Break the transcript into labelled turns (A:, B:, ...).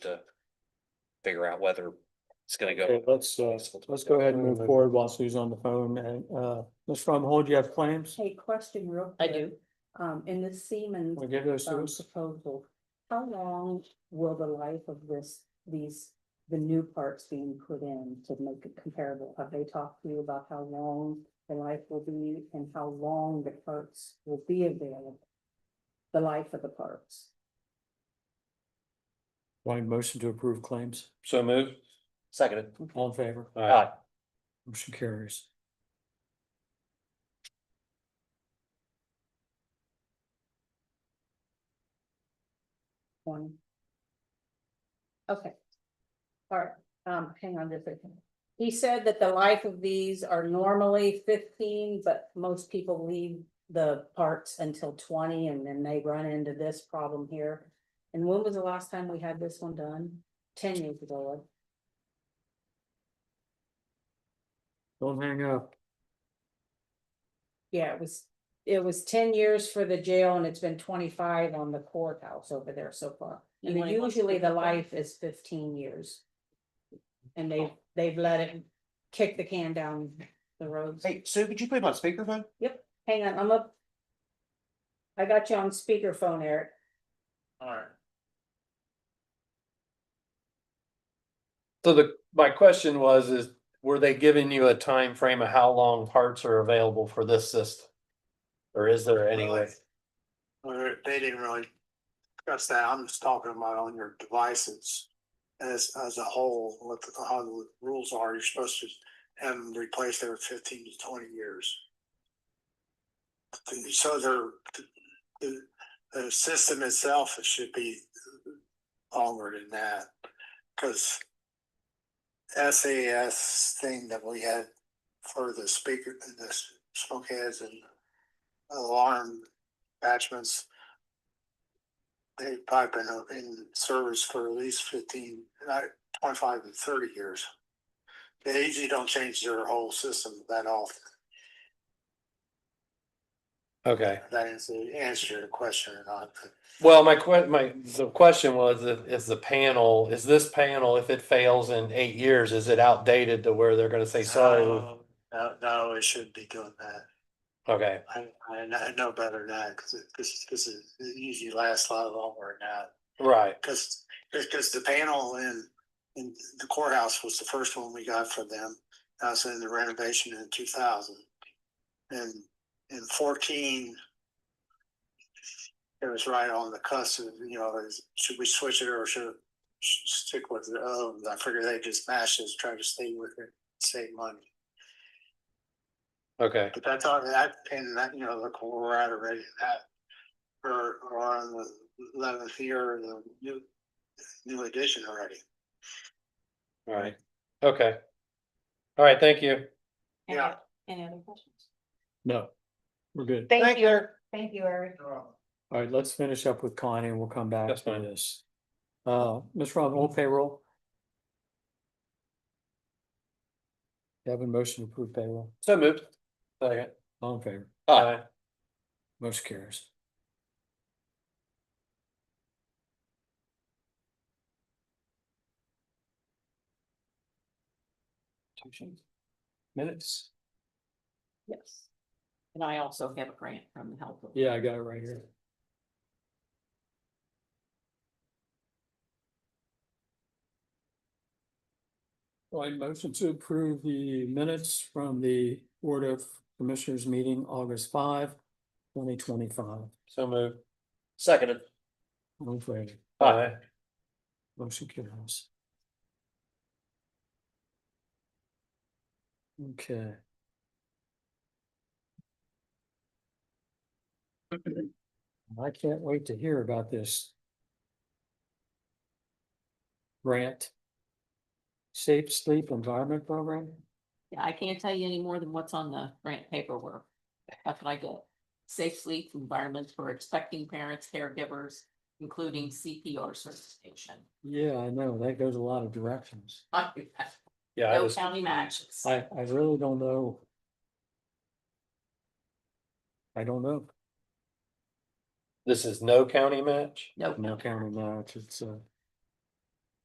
A: to figure out whether it's gonna go.
B: Okay, let's, uh, let's go ahead and move forward while Sue's on the phone and, uh, Ms. Fromhold, you have claims?
C: Hey, question real
D: I
C: quick.
D: do.
C: Um, in the Siemens
B: We give those to
C: um,
B: us?
C: proposal, how long will the life of this, these, the new parts being put in to make it comparable? Have they talked to you about how long the life will be and how long the parts will be available? The life of the parts.
B: Want a motion to approve claims?
E: So move.
A: Seconded.
B: All in favor?
A: Aye.
B: Motion carries.
C: One. Okay. All right, um, hang on just a second. He said that the life of these are normally fifteen, but most people leave the parts until twenty and then they run into this problem here. And when was the last time we had this one done? Ten years ago.
B: Don't hang up.
C: Yeah, it was, it was ten years for the jail and it's been twenty-five on the courthouse over there so far.
D: And when
C: And
D: it was
C: usually the
D: 25.
C: life is fifteen years. And
D: Oh.
C: they, they've let it kick the can down the road.
A: Hey, Sue, could you put him on speakerphone?
C: Hang on, I'm up. I got you on speakerphone, Eric.
E: Alright. So the, my question was, is were they giving you a time frame of how long parts are available for this system? Or is there any way?
F: Or they didn't really discuss that. I'm just talking about on your devices. As, as a whole, what, the- how the rules are, you're supposed to have them replaced every fifteen to twenty years. And So they're, the, the system itself, it should be longer than that, because SAS thing that we had for the speaker, the smoke heads and alarm attachments. They've probably been in service for at least fifteen, uh, twenty-five to thirty years. They usually don't change their whole system that often.
E: Okay,
F: That is the answer to your question or not. but-
E: well, my que- my, the question was, if- is the panel, is this panel, if it fails in eight years, is it outdated to where they're gonna say, sorry?
F: No, no, it shouldn't be doing that.
E: Okay,
F: I, I kn- I know better now, because it, this, this is, it usually lasts a lot longer than that.
E: right,
F: Cause, because the panel in, in the courthouse was the first one we got from them. I was in the renovation in two thousand. And in fourteen. It was right on the cusp of, you know, is- should we switch it or should should stick with it? Oh, I figure they just mashed it, try to stay with it, save money.
E: okay,
F: But that's all that, and that, you know, look, where we're at already, that, we're, we're on the eleventh year, of the new, new edition already.
E: all right, okay. All right, thank you.
F: Any- Yeah.
C: Any other questions?
B: No, we're good.
D: Thank you,
E: you.
D: thank you, Eric.
B: All right, let's finish up with Connie and we'll come back
E: That's
B: to
E: fine.
B: this. Uh, Ms. Fromhold, payroll? You have a motion to approve payroll?
E: So moved. Second.
B: All in favor?
E: Aye.
B: Motion carries. Minutes?
D: Yes. And I also have a grant from the help. of-
B: Yeah, I got it right here. So I motion to approve the minutes from the Board of Commissioners meeting August five, twenty twenty-five.
E: So moved.
A: Seconded.
B: All in favor?
E: Aye.
B: Motion carries. Okay. I can't wait to hear about this. Grant. Safe Sleep Environment Program?
D: Yeah, I can't tell you any more than what's on the grant paperwork. That's what I get. Safe sleep environments for expecting parents, caregivers, including CPR certification.
B: Yeah, I know, that goes a lot of directions.
D: No
E: Yeah, I just,
D: county matches.
B: I, I really don't know. I don't know.
E: this is no county match?
D: No,
B: No county match, it's uh